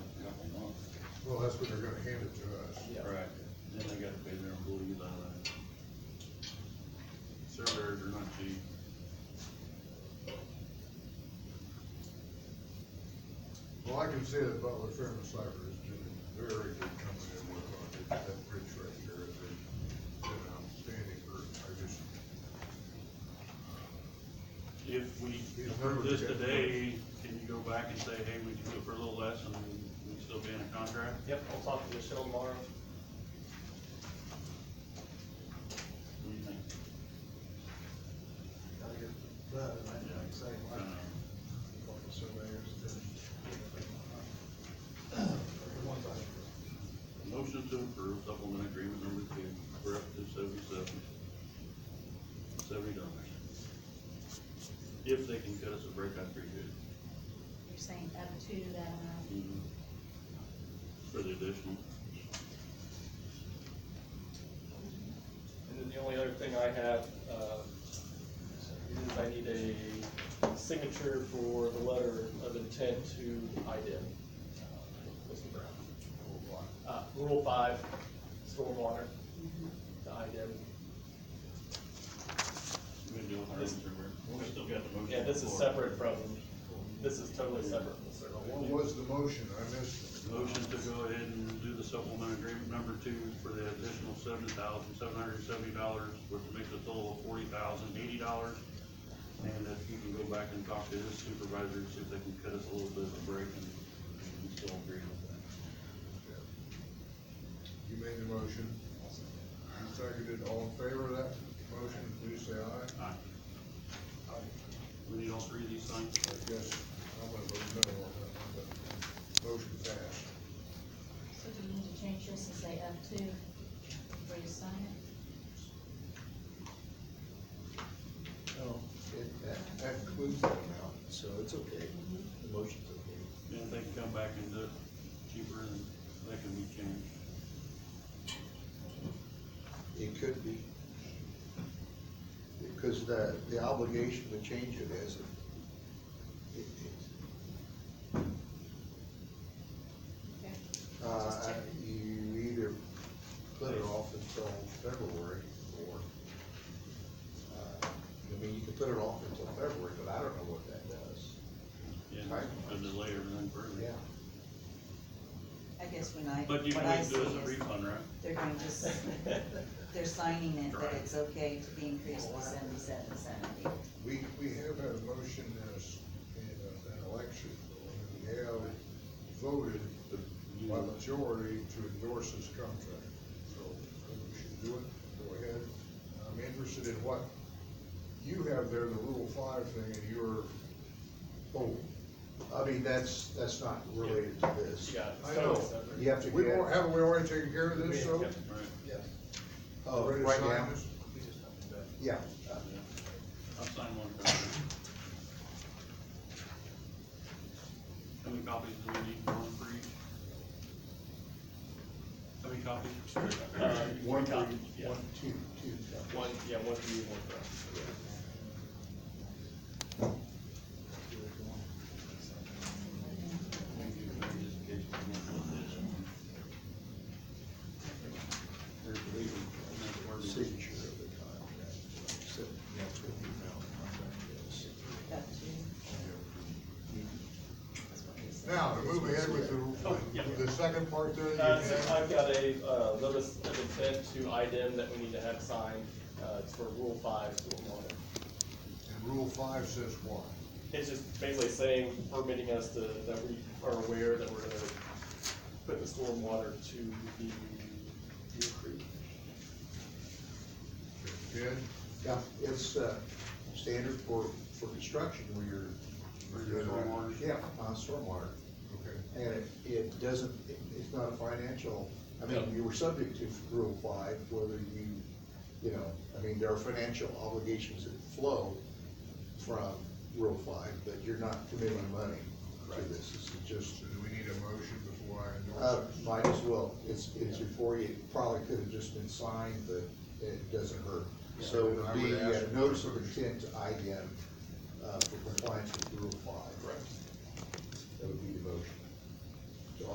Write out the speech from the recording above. that's when they're gonna hand it to us. Yeah. Right, then they gotta pay their employees all that. Surveyors are not cheap. Well, I can see that Butler Fairness Cyber is doing a very good company to work on, it. that bridge right there is a, an outstanding group, I just, If we approve this today, can you go back and say, hey, we can do it for a little less and we still be in a contract? Yep, I'll talk to Michelle tomorrow. What do you think? Gotta get that, and I think, say, Uh, like, a couple of surveyors did. The ones I, Motion to approve supplement agreement number two, for up to seventy-seven, seventy dollars. If they can cut us a break, I'd appreciate it. Mm-hmm. You're saying up to um, that amount. For the additional, And then the only other thing I have, uh, is I need a signature for the letter of intent to IDIM. uh, Mr. Brown. Uh, Rule five, stormwater to IDIM. we can do it our own survey. We still got the motion. Yeah, this on is the floor. separate from, this is totally separate from the uh, what survey. was the motion, I missed it. Motion to go ahead and do the supplement agreement number two for the additional seven thousand, seven hundred and seventy dollars, which makes a total of forty thousand, eighty dollars. And if you can go back and talk to his supervisor, see if they can cut us a little bit of a break and we can still agree with that. You made the motion, you seconded, all in favor of that motion, please say aye. Aye. We need all three of these signed? I guess, I'm gonna vote no on that, one, but motion passed. So do we need to change this and say up to before you sign it? no, It- That, that includes that amount. so it's okay, the motion's okay. Then they can come back and do it cheaper and that can be changed. It could be. Because the, the obligation to change it is, it- it- Okay. Just uh, check. you either put it off until February or, uh, I mean, you can put it off until February, but I don't know what that does. Yeah, to delay everything further. Yeah. I guess when I, But you what I can see do it as a is refund, right? they're going to just, they're signing it Right. that it's okay to be increased to seventy-seven, seventy. We, we have had a motion as, in an election, and we have voted the- by majority to endorse this contract. So, I think we should do it, go ahead. I'm interested in what you have there, the Rule Five thing, and your, Oh, I mean, that's, that's not related to this. Yeah, it's I totally know. separate. You have to we get, don't, haven't we already taken care of this, so? Yep. Right. Yes. oh, Ready to right sign now, this? We just have to, yeah. uh, I'll sign one copy. How many copies do we need, one for each? How many copies? Uh, One, copy, three, yeah. one, two, two, yeah. One, yeah, one for you, one for us. signature of the contract. So that's what the amount of contract is. Up to, Now, to move ahead with Oh, yeah. the, the second part there. you Uh, so have- I've got a, uh, notice of intent to IDIM that we need to have signed, uh, it's for Rule Five stormwater. And Rule Five says what? It's just basically saying, permitting us to, that we are aware that we're gonna put the stormwater to the Deer Creek. Ted? Yeah, it's, uh, standard for, for construction where you're. For your stormwater? Yeah, on stormwater. Okay. And it, it doesn't, it- it's not a financial, I mean, you were subject to rule five, whether you, you know, I mean, there are financial obligations that flow from rule five, but you're not committing money to this. This is just So do we need a motion before I Uh, endorse this? might as well, it's, it's before you, it probably could have just been signed, but it doesn't hurt. So it I would would be ask a for notice a of motion. intent to IDM, uh, for compliance with Rule Five. Right. That would be the motion.